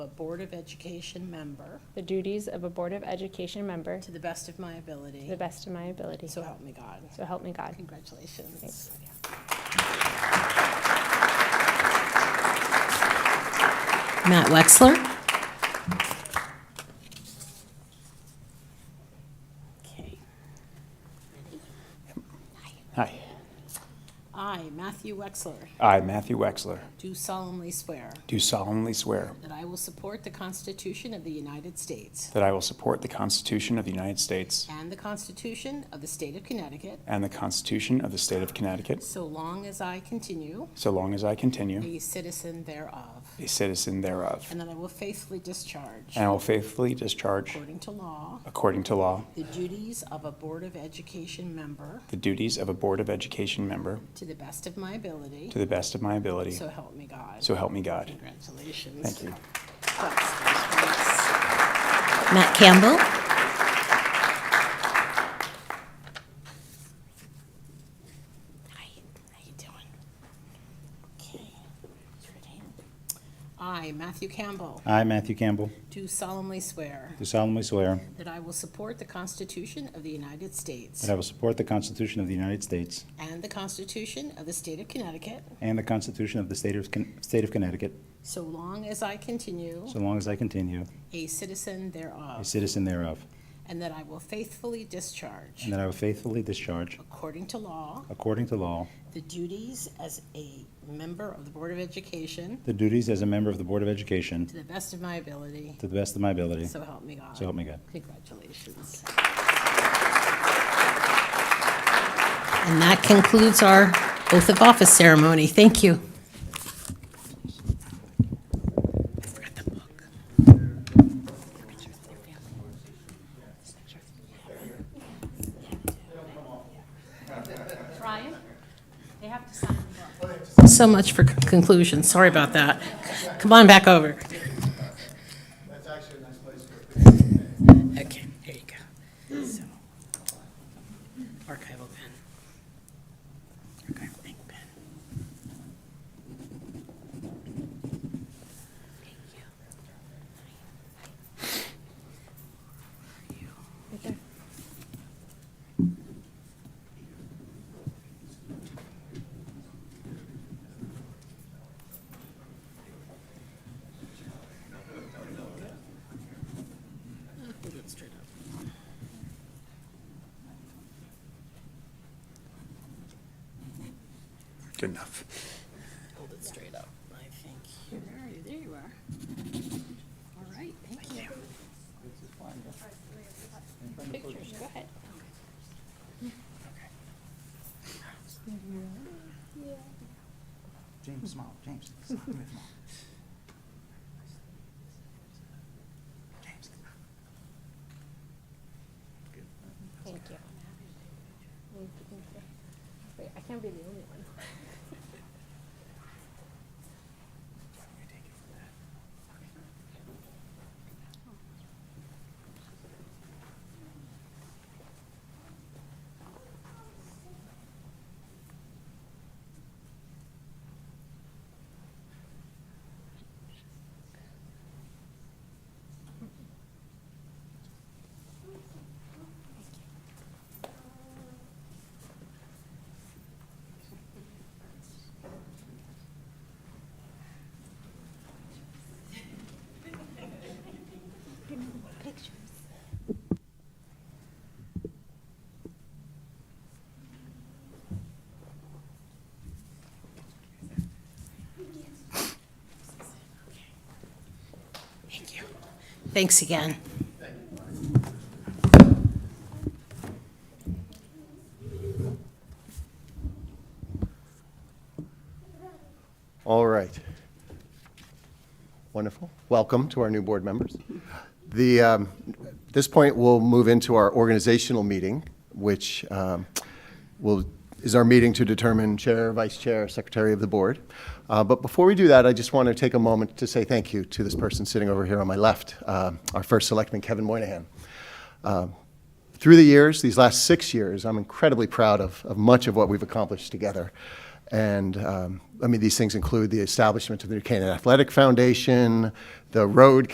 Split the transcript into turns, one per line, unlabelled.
a Board of Education member
the duties of a Board of Education member
to the best of my
to the
ability.
best of my ability.
So help me God.
So help me God.
Congratulations. Matt Wexler. Okay.
Hi.
I, Matthew Wexler,
I, Matthew Wexler,
do solemnly swear
do solemnly swear
that I will support the Constitution of the United States
that I will support the Constitution of the United States
and the Constitution of the State of Connecticut
and the Constitution of the State of Connecticut
so long as I continue
so long as I continue
a citizen thereof,
a citizen thereof.
and that I will faithfully discharge,
And I will faithfully discharge,
according to law,
according to law,
the duties of a Board of Education member
the duties of a Board of Education member
to the best of my ability.
to the best of my ability.
So help me God.
So help me God.
Congratulations.
Thank you.
Thank
Matt Campbell.
I, Matthew Campbell,
I, Matthew Campbell,
do solemnly swear
do solemnly swear
that I will support the Constitution of the United States
that I will support the Constitution of the United States
and the Constitution of the State of Connecticut
and the Constitution of the State of, Con- State of Connecticut,
so long as I continue
so long as I continue
a citizen
a
thereof,
citizen thereof,
and that I will faithfully discharge,
and that I will faithfully discharge,
according to law,
according to law,
the duties as a member of the Board of Education
the duties as a member of the Board of Education
to the best of my ability.
to the best of my ability.
So help me God.
So help me God.
Congratulations.
And that concludes our oath of office ceremony. Thank you.
Ryan, they have to sign the book.
So much for conclusion. Sorry about that. Come on back over. Okay, there you go. So, Archival pen. Archival ink pen. Thank you.
Hold it straight up.
Good enough.
Hold it straight up. I think, where are you? There you are. All right, thank you.
Pictures, go ahead.
James, smile. James.
Thank you. Wait, I can't be the only one.
Thank you. Thanks again.
All right. Wonderful. Welcome to our new board members. The, um, at this point, we'll move into our organizational meeting, which um, will, is our meeting to determine chair, vice chair, secretary of the board. Uh, But before we do that, I just want to take a moment to say thank you to this person sitting over here on my left, uh, our first selectman, Kevin Moynihan. Uh, Through the years, these last six years, I'm incredibly proud of, of much of what we've accomplished together. And, um, I mean, these things include the establishment of the New Canaan Athletic Foundation, the road